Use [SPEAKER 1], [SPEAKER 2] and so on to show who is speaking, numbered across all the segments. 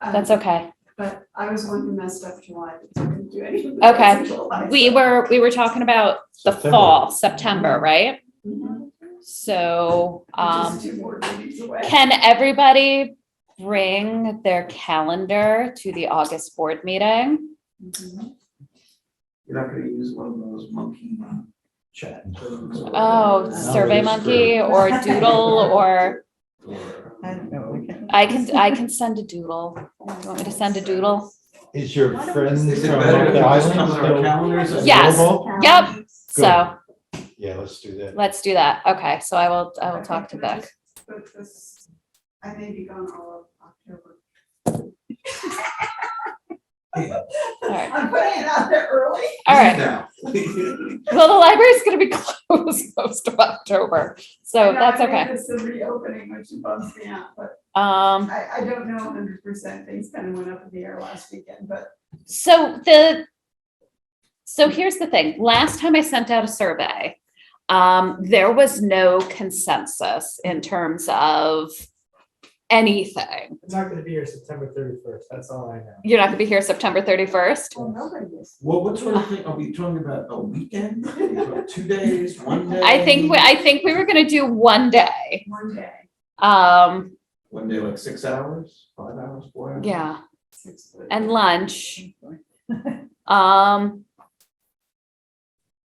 [SPEAKER 1] That's okay.
[SPEAKER 2] Um, But I was the one who messed up July, because I couldn't do anything.
[SPEAKER 1] Okay. We were, we were talking about the
[SPEAKER 3] September.
[SPEAKER 1] fall, September, right?
[SPEAKER 2] Mhm.
[SPEAKER 1] So, um,
[SPEAKER 2] Just two more meetings away.
[SPEAKER 1] can everybody bring their calendar to the August board meeting?
[SPEAKER 2] Mhm.
[SPEAKER 4] You're not gonna use one of those monkey chat. things or-
[SPEAKER 1] Oh, Survey Monkey or Doodle or
[SPEAKER 4] Or-
[SPEAKER 5] I don't know, we can-
[SPEAKER 1] I can, I can send a doodle. Do you want me to send a doodle?
[SPEAKER 3] Is your
[SPEAKER 2] Why don't we
[SPEAKER 3] friend
[SPEAKER 2] just-
[SPEAKER 3] from
[SPEAKER 4] Is it better if
[SPEAKER 3] the
[SPEAKER 4] it just
[SPEAKER 3] island
[SPEAKER 4] comes on our
[SPEAKER 3] still?
[SPEAKER 4] calendars? as
[SPEAKER 1] Yes.
[SPEAKER 3] available?
[SPEAKER 1] Yep. So
[SPEAKER 3] Yeah, let's do that.
[SPEAKER 1] let's do that. Okay, so I will, I will talk to
[SPEAKER 2] think I
[SPEAKER 1] Vic.
[SPEAKER 2] just put this- I may be gone all of October.
[SPEAKER 1] All right.
[SPEAKER 2] I'm putting it out there early.
[SPEAKER 1] All right.
[SPEAKER 4] Now.
[SPEAKER 1] Well, the library's gonna be closed most of October, so
[SPEAKER 2] And I
[SPEAKER 1] that's
[SPEAKER 2] made
[SPEAKER 1] okay.
[SPEAKER 2] This is reopening, which bumps me out, but
[SPEAKER 1] Um,
[SPEAKER 2] I, I don't know hundred percent. Things kind of went up in the air last weekend, but
[SPEAKER 1] so the, so here's the thing. Last time I sent out a survey, um, there was no consensus in terms of anything.
[SPEAKER 6] I'm not gonna be here September thirty-first, that's all I know.
[SPEAKER 1] You're not gonna be here September thirty-first?
[SPEAKER 2] well, nobody is.
[SPEAKER 4] Well, what sort of thing, are we talking about a weekend, Are we talking two days, one day?
[SPEAKER 1] I think, we- I think we were gonna do one day.
[SPEAKER 2] One day,
[SPEAKER 1] Um,
[SPEAKER 4] One day, like six hours, five hours, four hours?
[SPEAKER 1] yeah,
[SPEAKER 2] six foot.
[SPEAKER 1] and lunch. Um,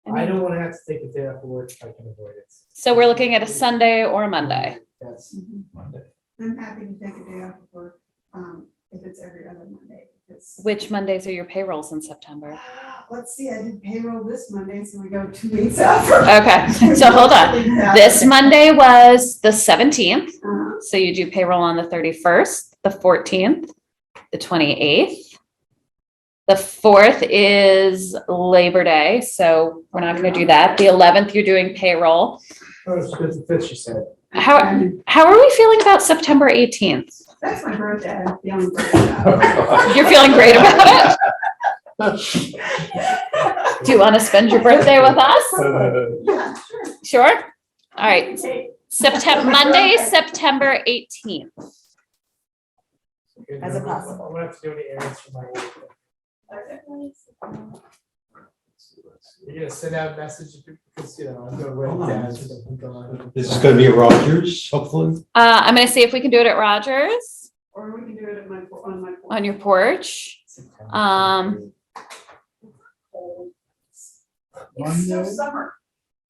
[SPEAKER 6] I don't wanna have to take a day off of work if I can avoid it.
[SPEAKER 1] so we're looking at a Sunday or a Monday.
[SPEAKER 6] That's,
[SPEAKER 2] Mhm.
[SPEAKER 4] Monday.
[SPEAKER 2] I'm happy to take a day off of work, um, if it's every other Monday, because.
[SPEAKER 1] Which Mondays are your payrolls in September?
[SPEAKER 2] Let's see, I did payroll this Monday, so we go two weeks out. from-
[SPEAKER 1] Okay, so hold on. This Monday was the seventeenth,
[SPEAKER 2] Uh-huh.
[SPEAKER 1] so you do payroll on the thirty-first, the fourteenth, the twenty-eighth. The fourth is Labor Day, so we're not gonna do that. The eleventh, you're doing payroll.
[SPEAKER 6] oh, it's because the fifth, she said.
[SPEAKER 1] How, how are we feeling about September eighteenth?
[SPEAKER 2] That's my birthday, I'm feeling great about it.
[SPEAKER 1] You're feeling great about it? Do you wanna spend your birthday with us?
[SPEAKER 2] Yeah, sure.
[SPEAKER 1] Sure? All right,
[SPEAKER 2] Okay.
[SPEAKER 1] September, Monday, September eighteenth.
[SPEAKER 5] As a possible.
[SPEAKER 6] I won't have to do any errands for my work. You're gonna send out messages because, you know, I'm gonna
[SPEAKER 4] Hold on.
[SPEAKER 6] write down. so I'm gone.
[SPEAKER 3] This is gonna be at Rogers, hopefully.
[SPEAKER 1] Uh, I'm gonna see if we can do it at Rogers
[SPEAKER 2] Or we can do it at my, on my.
[SPEAKER 1] on your porch.
[SPEAKER 6] September
[SPEAKER 1] Um,
[SPEAKER 2] It's so summer,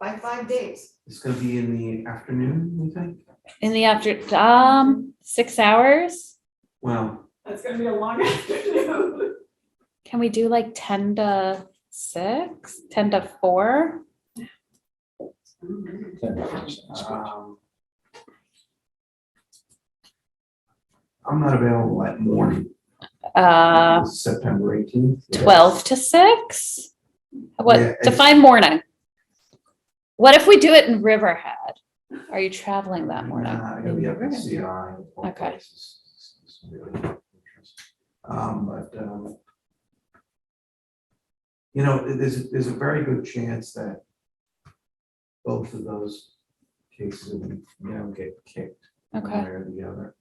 [SPEAKER 2] by five days.
[SPEAKER 4] It's gonna be in the afternoon, we think?
[SPEAKER 1] in the after, um, six hours.
[SPEAKER 4] Well,
[SPEAKER 2] That's gonna be a long afternoon.
[SPEAKER 1] Can we do like ten to six, ten to four?
[SPEAKER 4] um. I'm not available that morning,
[SPEAKER 1] Uh,
[SPEAKER 4] September eighteenth.
[SPEAKER 1] twelve to six?
[SPEAKER 4] Yeah,
[SPEAKER 1] What,
[SPEAKER 4] it's-
[SPEAKER 1] define morning? What if we do it in Riverhead? Are you traveling that morning?
[SPEAKER 4] Nah, I gotta be up in CI. of all
[SPEAKER 1] Okay.
[SPEAKER 4] places. It's- it's really interesting. Um, but, um. You know, th- there's, there's a very good chance that. Both of those cases, will, you know, get kicked. one
[SPEAKER 1] Okay.
[SPEAKER 4] way Or the other.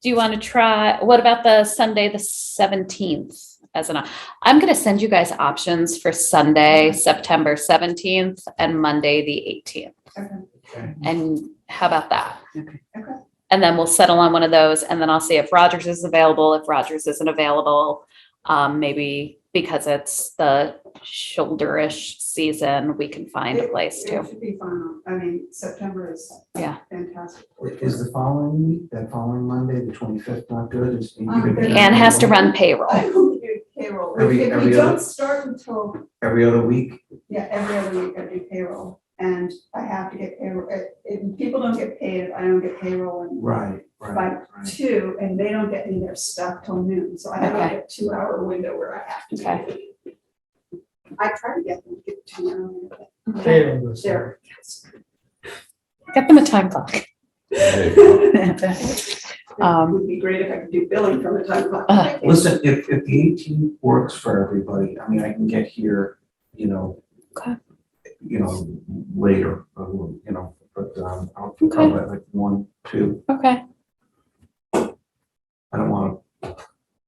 [SPEAKER 1] Do you want to try, what about the Sunday, the seventeenth as an, op- I'm going to send you guys options for Sunday, September seventeenth and Monday, the eighteenth.
[SPEAKER 2] Okay.
[SPEAKER 4] Okay.
[SPEAKER 1] And how about that?
[SPEAKER 5] Okay.
[SPEAKER 2] Okay.
[SPEAKER 1] And then we'll settle on one of those and then I'll see if Rogers is available. If Rogers isn't available, um, maybe because it's the shoulderish season, we can find a place
[SPEAKER 2] It
[SPEAKER 1] to.
[SPEAKER 2] should be fun, I mean, September is.
[SPEAKER 1] Yeah.
[SPEAKER 2] Fantastic.
[SPEAKER 4] Is the following week, that following Monday, the twenty-fifth, not good? Is- you
[SPEAKER 2] Um,
[SPEAKER 4] could-
[SPEAKER 1] Anne has to run payroll.
[SPEAKER 2] I will do payroll, if
[SPEAKER 4] Every-
[SPEAKER 2] if we
[SPEAKER 4] every
[SPEAKER 2] don't
[SPEAKER 4] other-
[SPEAKER 2] start until
[SPEAKER 4] Every other week?
[SPEAKER 2] Yeah, every other week I do payroll and I have to get payroll, if, if people don't get paid, I don't get payroll and
[SPEAKER 4] Right, right,
[SPEAKER 2] Right.
[SPEAKER 4] right.
[SPEAKER 2] two, and they don't get me their stuff till noon, so I have like a two hour window where I have to. get
[SPEAKER 1] Okay.
[SPEAKER 2] it. I try to get them to get to noon, but
[SPEAKER 6] Day on the seventh.
[SPEAKER 2] they're.
[SPEAKER 1] Get them a time clock.
[SPEAKER 2] It
[SPEAKER 1] Um,
[SPEAKER 2] would be great if I could do billing from the time clock.
[SPEAKER 1] Uh.
[SPEAKER 4] Listen, if, if the eighteen works for everybody, I mean, I can get here, you know.
[SPEAKER 1] Okay.
[SPEAKER 4] You know, later, uh, you know, but, um, I'll
[SPEAKER 1] Okay.
[SPEAKER 4] probably like one, two,
[SPEAKER 1] okay.
[SPEAKER 4] I don't wanna